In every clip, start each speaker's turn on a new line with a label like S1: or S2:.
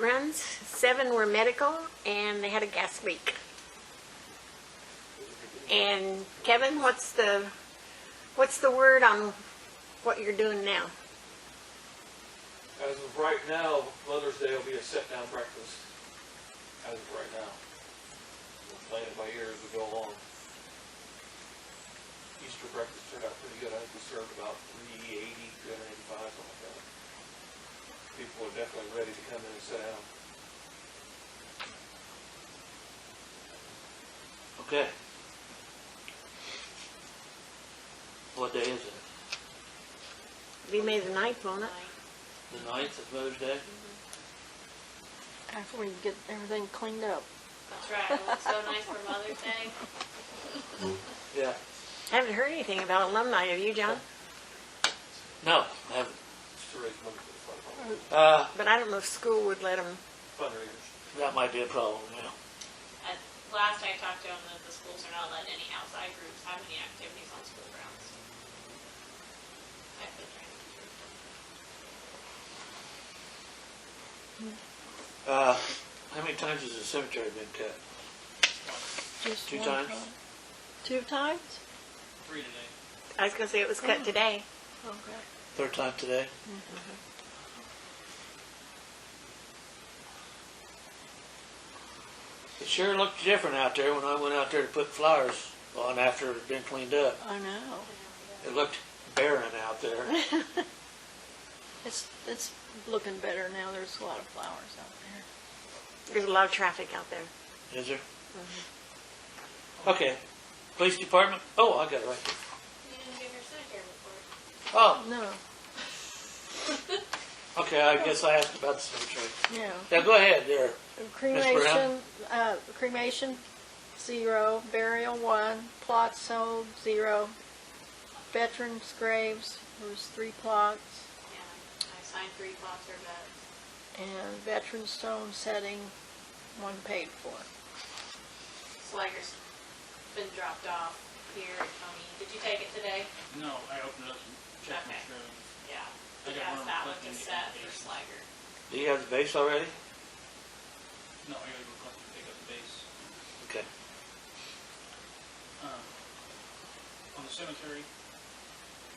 S1: runs, seven were medical, and they had a gas leak. And Kevin, what's the, what's the word on what you're doing now?
S2: As of right now, Mother's Day will be a sit-down breakfast, as of right now. We're playing it by ear as we go along. Easter breakfast turned out pretty good, I think we served about three eighty, three hundred eighty-five, something like that. People are definitely ready to come in and sit down.
S3: Okay. What day is it?
S1: It'll be May the ninth, won't it?
S3: The ninth is Mother's Day?
S4: After we get everything cleaned up.
S5: That's right, it looks so nice for Mother's Day.
S3: Yeah.
S1: I haven't heard anything about alumni, have you, John?
S3: No, I haven't.
S2: Just to raise money for the fund-
S3: Uh,
S1: But I don't know if school would let them.
S2: fundraisers.
S3: that might be a problem, yeah.
S5: At- Last I talked to them, that the schools are not letting any outside groups have any activities on school grounds. I've been trying to keep it.
S3: Uh, how many times has the cemetery been cut?
S4: Just
S3: Two
S4: one
S3: times?
S4: time. Two times?
S2: Three today.
S1: I was gonna say it was cut today.
S4: Okay.
S3: Third time today? It sure looked different out there when I went out there to put flowers on after it had been cleaned up.
S4: I know.
S3: It looked barren out there.
S4: It's, it's looking better now. There's a lot of flowers out there.
S1: There's a lot of traffic out there.
S3: Is there?
S4: Mm-hmm.
S3: Okay. Police department? Oh, I got it right there.
S5: You didn't give your cemetery report.
S3: Oh,
S4: No,
S3: okay, I guess I asked about the cemetery.
S4: no.
S3: Now, go ahead there.
S4: Cremation, uh, cremation, zero. Burial, one. Plots sold, zero. Veterans graves, there was three plots.
S5: Yeah, I signed three plots or beds.
S4: And veteran stone setting, one paid for.
S5: Slager's been dropped off here at Tony. Did you take it today?
S6: No, I opened it up and checked my
S5: Okay.
S6: phone.
S5: Yeah.
S6: I got
S5: Yes,
S6: one
S5: that one
S6: reflecting
S5: just
S6: the
S5: set for
S6: application.
S5: Slager.
S3: Do you have the base already?
S6: No, I gotta go collect and pick up the base.
S3: Okay.
S6: Um, on the cemetery,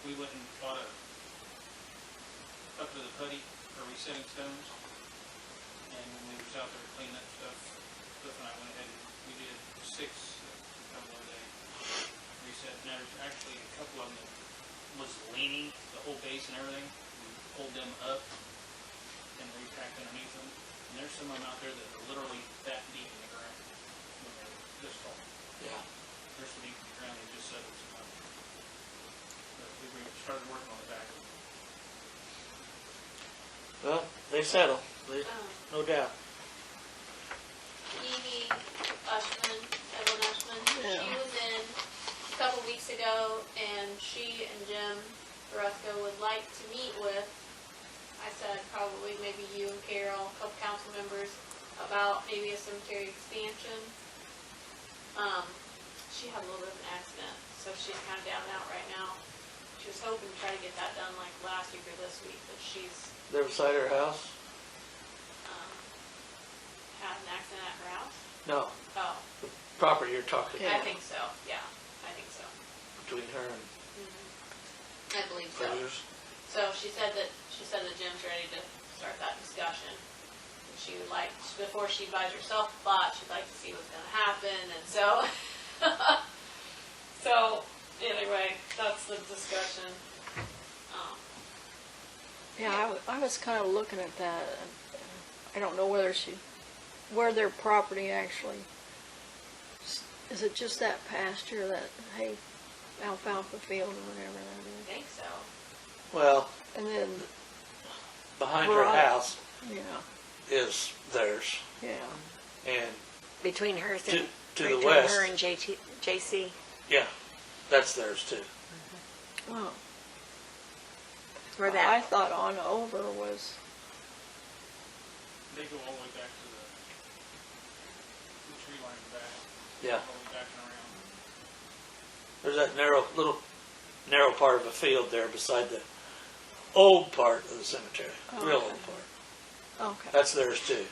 S6: we went and bought a, up to the putty for resetting stones. And when we was out there cleaning up stuff, Cliff and I went ahead and we did six, a couple of day reset. And there's actually a couple of them that was leaning, the whole base and everything. We pulled them up and repacked underneath them. And there's some of them out there that are literally that deep in the ground when they're this tall
S3: Yeah.
S6: first week in ground, they just said it was enough. But we we started working on the back.
S3: Well, they settle, They-
S5: Um,
S3: no doubt.
S5: Edie Ushman, Evelyn Ushman,
S4: Yeah.
S5: she was in a couple weeks ago, and she and Jim Barresco would like to meet with, I said probably maybe you and Carol, a couple council members, about maybe a cemetery expansion. Um, she had a little bit of an accident, so she's kind of down and out right now. She was hoping to try to get that done like last week or this week, but she's,
S3: They're beside her house?
S5: um, had an accident at her house.
S3: No,
S5: Oh,
S3: property you're talking
S5: I
S3: about,
S5: think so, yeah, I think so.
S3: between her and
S5: I believe so.
S3: Cruisers.
S5: So she said that, she said that Jim's ready to start that discussion. And She would like, before she buys herself a plot, she'd like to see what's gonna happen, and so. So, anyway, that's the discussion. Um,
S4: Yeah, I wa- I, was kind of looking at that. and, uh, I don't know whether she, where their property actually, s- is it just that pasture, that hay alfalfa field or whatever
S5: I
S4: that
S5: think so.
S3: Well,
S4: is? And then,
S3: behind her
S4: Right.
S3: house
S4: yeah,
S3: is theirs,
S4: yeah.
S3: and,
S1: Between hers
S3: To-
S1: and.
S3: to the
S1: Between her
S3: west.
S1: and JT, JC.
S3: yeah, that's theirs too.
S4: Well,
S1: Or
S4: I
S1: that.
S4: thought on over was,
S6: They go all the way back to the, the tree line in the back.
S3: Yeah,
S6: All the way back and around.
S3: there's that narrow, little narrow part of a field there beside the old part of the cemetery, real
S4: Okay.
S3: old part.
S4: okay.
S3: That's theirs too.